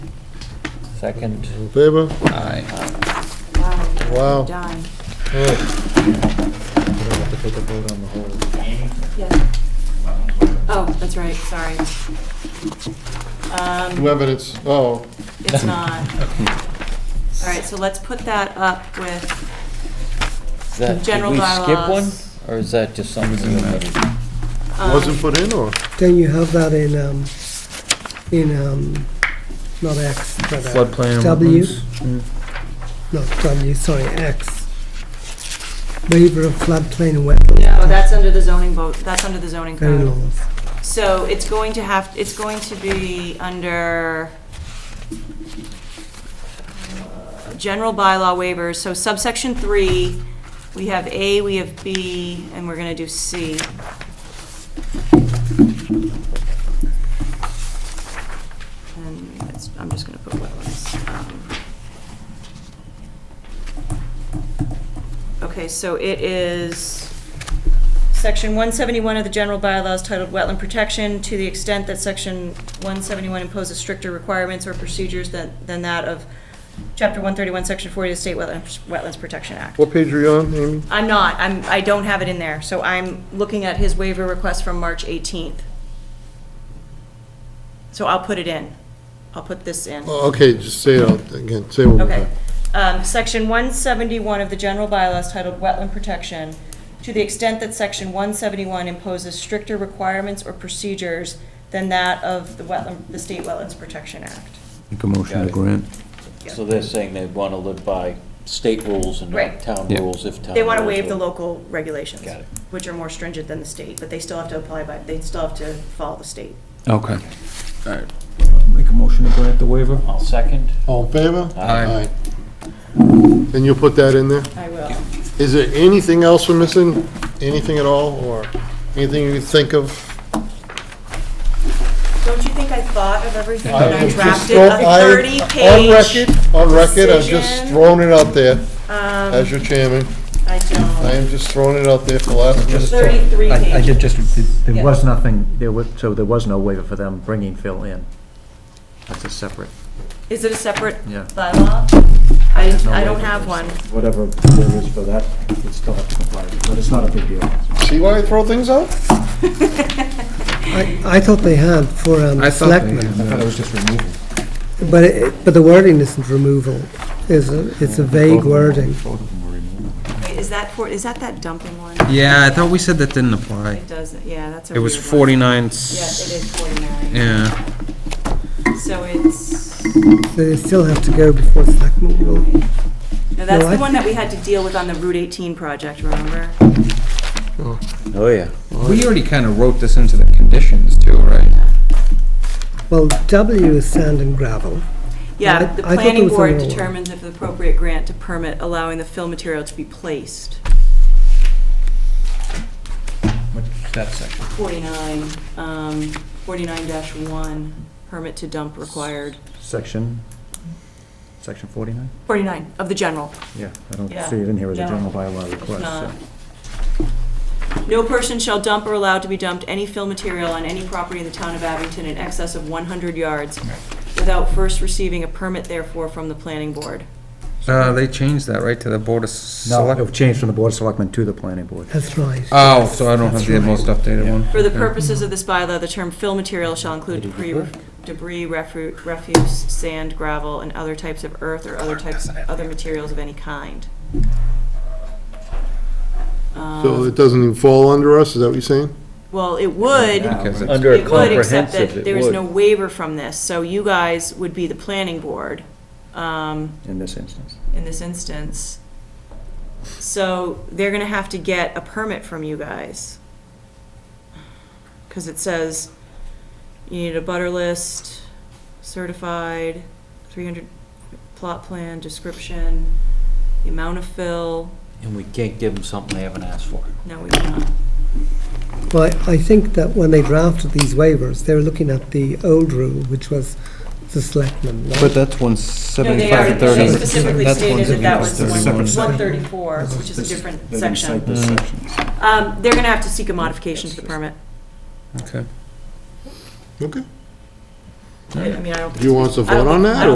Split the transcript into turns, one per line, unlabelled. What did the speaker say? Second.
In favor?
Aye.
Wow.
Done.
We don't have to take a vote on the whole.
Yes. Oh, that's right, sorry. Um,
New evidence, oh,
It's not. All right, so let's put that up with,
Is that-
General
Did we
bylaws.
skip one, or is that just something you omitted?
um,
wasn't put in or?
Then you have that in, um, in, um, not X, but. uh,
Floodplain.
W,
wetlands.
not W, sorry, X. Waiver of floodplain wetland
no, oh, that's under the zoning vote, that's under the zoning
and
code.
laws.
So it's going to have, it's going to be under uh, general bylaw waivers, so subsection three, we have A, we have B, and we're gonna do C. And that's, I'm just gonna put wetlands. um. Okay, so it is Section 171 of the general bylaws titled Wetland Protection, to the extent that Section 171 imposes stricter requirements or procedures than, than that of Chapter 131, Section 40 of the State Wetlands, Wetlands Protection Act.
What page are you on, Amy?
I'm not, I'm, I don't have it in there, so I'm looking at his waiver request from March 18th. So I'll put it in. I'll put this in.
Oh, Okay, just say it out again, say it one more
Okay.
time.
Um, Section 171 of the general bylaws titled Wetland Protection, to the extent that Section 171 imposes stricter requirements or procedures than that of the wetland, the State Wetlands Protection Act.
Make a motion
Got
to
it.
grant.
Yeah.
So they're saying they want to live by state rules and
Right.
not town
Yeah.
rules if town.
They want to
rules
waive the
are-
local regulations,
Got it.
which are more stringent than the state, but they still have to apply by, they still have to follow the state.
Okay. All right. Make a motion to grant the waiver.
I'll second.
All in favor?
Aye.
And you'll put that in there?
I will.
Is there anything else we're missing? Anything at all, or anything you think of?
Don't you think I thought of everything when I
I've just
drafted
thrown-
a
I-
30-page?
On record, on record, I've just
decision.
thrown it out there
Um,
as your chairman.
I
I
don't.
am just throwing it out there for last minute.
33
I, I
pages.
did just,
Yeah.
there was nothing, there was, so there was no waiver for them bringing Phil in. That's a separate,
Is it a separate
Yeah.
bylaw? I,
no
I don't
waiver.
have one.
whatever there is for that, it still has to comply, but it's not a big deal.
See why I throw things out?
I, I thought they had for, um,
I thought they
selectmen,
had.
it was just removal.
but it, but the wording isn't removal. It's a, it's a vague wording.
Both of them were removal.
Wait, Is that for, is that that dumping one?
Yeah, I thought we said that didn't apply.
It does, yeah, that's a
It was
weird one.
49.
Yeah, it is 49.
Yeah.
So it's,
So they still have to go before selectmen will.
no, that's
No,
the
I-
one that we had to deal with on the Route 18 project, remember?
Oh, yeah.
We already kind of wrote this into the conditions too, right?
Well, W is sand and gravel. I-
Yeah, the
I thought there
planning
was
board
another one.
determines if the appropriate grant to permit allowing the fill material to be placed.
What's that section?
49, um, 49-1, permit to dump required.
Section, section forty-nine?
49 of the general.
Yeah, I don't
Yeah.
see it in here as a
No.
general bylaw
It's
request,
not.
so.
No person shall dump or allow to be dumped any fill material on any property in the town of Abington in excess of 100 yards without first receiving a permit therefore from the planning board.
Uh, they changed that, right, to the Board of
No,
Select?
it changed from the board of selectmen to the planning board.
That's right.
Oh, so I don't have the most updated one.
For the
Okay.
purposes of this bylaw, the term fill material shall include debris, debris, refu- refuse, sand, gravel, and other types of earth or other types, other materials of any kind. Uh-huh. Um,
So it doesn't even fall under us, is that what you're saying?
Well, it would,
Because it's-
Under a
it would, except
comprehensive,
that
it
there is
would.
no waiver from this, so you guys would be the planning board. Um,
in this instance.
in this instance. So they're gonna have to get a permit from you guys. Cause it says you need a butter list, certified, three hundred plot plan, description, the amount of fill,
And we can't give them something they haven't asked for.
no, we cannot.
Well, I- I think that when they drafted these waivers, they were looking at the old rule, which was the selectmen, right?
But that's one
No, they
seventy-five
are,
and
they
thirty.
specifically
That's
stated that that was
one-
one,
Separate
one
section.
thirty-four, which is a different
They didn't
section.
cite this section.
Um, they're gonna have to seek a modification to the permit.
Okay.
Okay.
I mean, I don't think
Do you want us to
I don't
vote on
think- I
that,
don't